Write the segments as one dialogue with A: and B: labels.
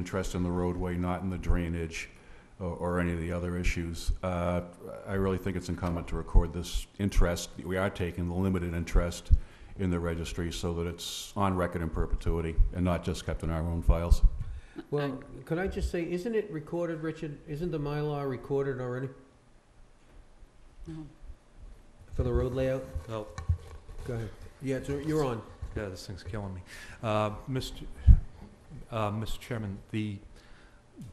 A: interest in the roadway, not in the drainage or, or any of the other issues. Uh, I really think it's incumbent to record this interest, we are taking the limited interest in the registry so that it's on record in perpetuity and not just kept in our own files.
B: Well, could I just say, isn't it recorded, Richard? Isn't the Mylar recorded already
C: No.
B: for the road layout?
D: Oh,
B: Go ahead. Yeah, it's- you're on.
D: yeah, this thing's killing me. Uh, Mr. uh, Mr. Chairman, the,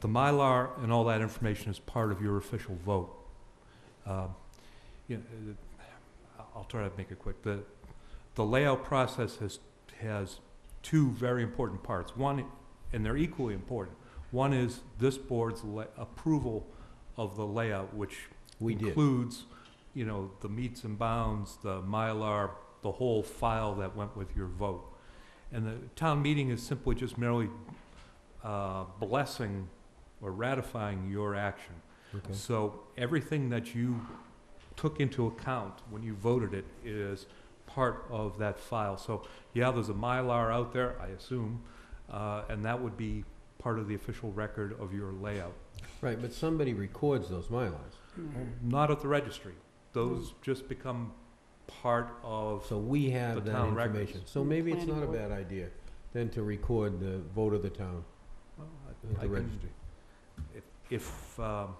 D: the Mylar and all that information is part of your official vote. Um, you know, uh, I'll try to make it quick. The, the layout process has, has two very important parts. One, and they're equally important. One is this board's la- approval of the layout, which
B: We did.
D: includes, you know, the meets and bounds, the Mylar, the whole file that went with your vote. And the town meeting is simply just merely uh, blessing or ratifying your action.
B: Okay.
D: So everything that you took into account when you voted it is part of that file. So, yeah, there's a Mylar out there, I assume, uh, and that would be part of the official record of your layout.
B: Right, but somebody records those Mylars.
C: Mm-hmm.
D: Not at the registry. Those just become part of,
B: So we
D: The
B: have that
D: town records.
B: information. So maybe it's
C: Planning
B: not a
C: board.
B: bad idea then to record the vote of the town
D: well, I-
B: at
D: I
B: the
D: can-
B: registry.
D: if- if um,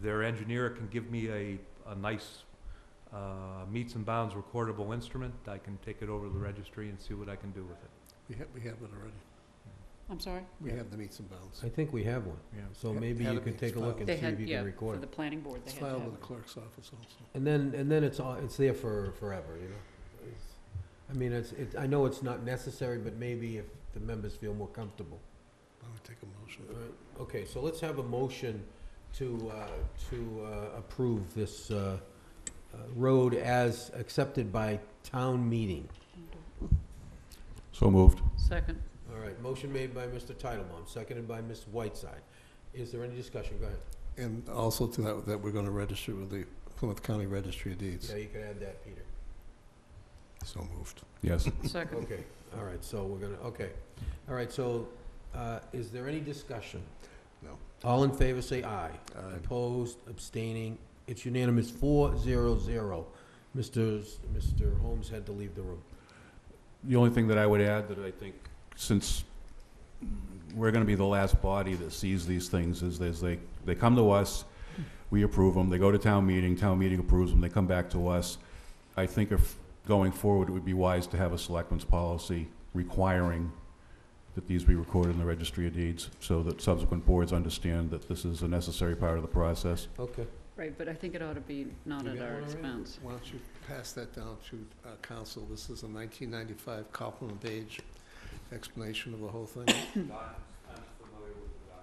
D: their engineer can give me a, a nice uh, meets and bounds recordable instrument, I can take it over
B: Mm-hmm.
D: to the registry and see what I can do with it.
E: We have, we have it already.
C: I'm sorry?
E: We have the meets and bounds.
B: I think we have one.
D: Yeah.
B: So
E: Yeah,
B: maybe
E: had
B: you
E: it
B: could
E: be
B: take a look and
E: filed.
B: see
C: They had,
B: if you
C: yeah,
B: can
C: for
B: record
C: the
B: it.
C: planning board, they
E: It's
C: had to
E: filed
C: have
E: with the
C: it.
E: clerk's office also.
B: And then, and then it's, all- it's there for forever, you know? It's- I mean, it's, it, I know it's not necessary, but maybe if the members feel more comfortable.
E: Why don't we take a motion?
B: Alright, Okay, so let's have a motion to, uh, to uh, approve this uh, uh, road as accepted by town meeting.
A: So moved.
C: Second.
B: All right, motion made by Mr. Titlebaum, seconded by Ms. Whiteside. Is there any discussion? Go ahead.
E: And also to that, that we're gonna register with the Plymouth County Registry of Deeds.
B: Yeah, you can add that, Peter.
E: So moved.
A: Yes.
C: Second.
B: Okay, all right, so we're gonna, okay. All right, so uh, is there any discussion?
E: No.
B: All in favor, say aye.
E: Aye.
B: Opposed, abstaining, it's unanimous, four zero zero. Mr. S- Mr. Holmes had to leave the room.
A: The only thing that I would add that I think, since we're gonna be the last body that sees these things, is there's they, they come to us, we approve them, they go to town meeting, town meeting approves them, they come back to us. I think if, going forward, it would be wise to have a selectmen's policy requiring that these be recorded in the registry of deeds, so that subsequent boards understand that this is a necessary part of the process.
B: Okay.
C: Right, but I think it ought to be not
E: You
C: at
E: got
C: our
E: one already?
C: expense.
E: Why don't you pass that down to uh, council? This is a 1995 Copeland Page explanation of the whole thing.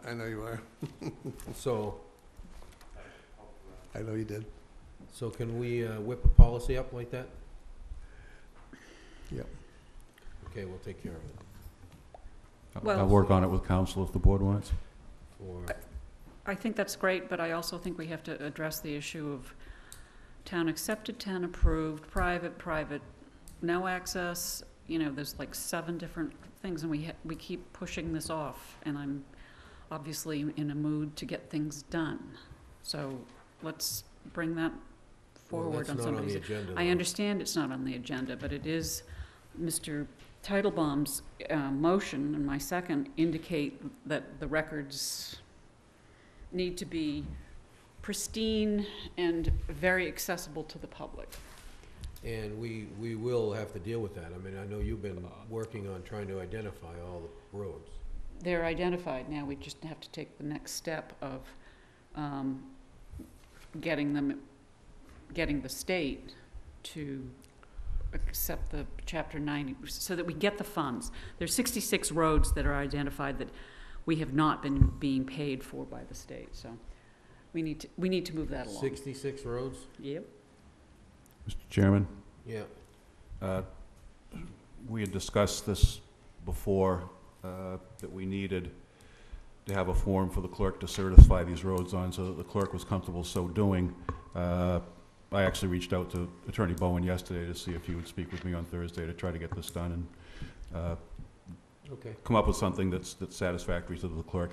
E: I know you are.
B: So,
E: I know you did.
B: so can we uh, whip a policy up like that?
E: Yep.
B: Okay, we'll take care of it.
A: I'll-
C: Well-
A: I'll work on it with council if the board wants.
B: Or,
C: Uh, I think that's great, but I also think we have to address the issue of town accepted, town approved, private, private, no access. You know, there's like seven different things and we, ha- we keep pushing this off. And I'm obviously in a mood to get things done. So let's bring that
B: well,
C: forward
B: that's
C: on
B: not on
C: somebody's
B: the agenda.
C: I
B: though.
C: understand it's not on the agenda, but it is, Mr. Titlebaum's uh, motion and my second indicate that the records need to be pristine and very accessible to the public.
B: And we, we will have to deal with that. I mean, I know you've been working on trying to identify all the roads.
C: They're identified now, we just have to take the next step of um, getting them, getting the state to accept the Chapter 90, so that we get the funds. There's 66 roads that are identified that we have not been being paid for by the state, so we need to, we need to move that along.
B: Sixty-six roads?
C: Yep.
A: Mr. Chairman?
B: Yeah.
A: Uh, We had discussed this before, uh, that we needed to have a form for the clerk to certify these roads on, so that the clerk was comfortable so doing. Uh, I actually reached out to Attorney Bowen yesterday to see if he would speak with me on Thursday to try to get this done, and uh,
B: Okay.
A: come up with something that's, that's satisfactory to the clerk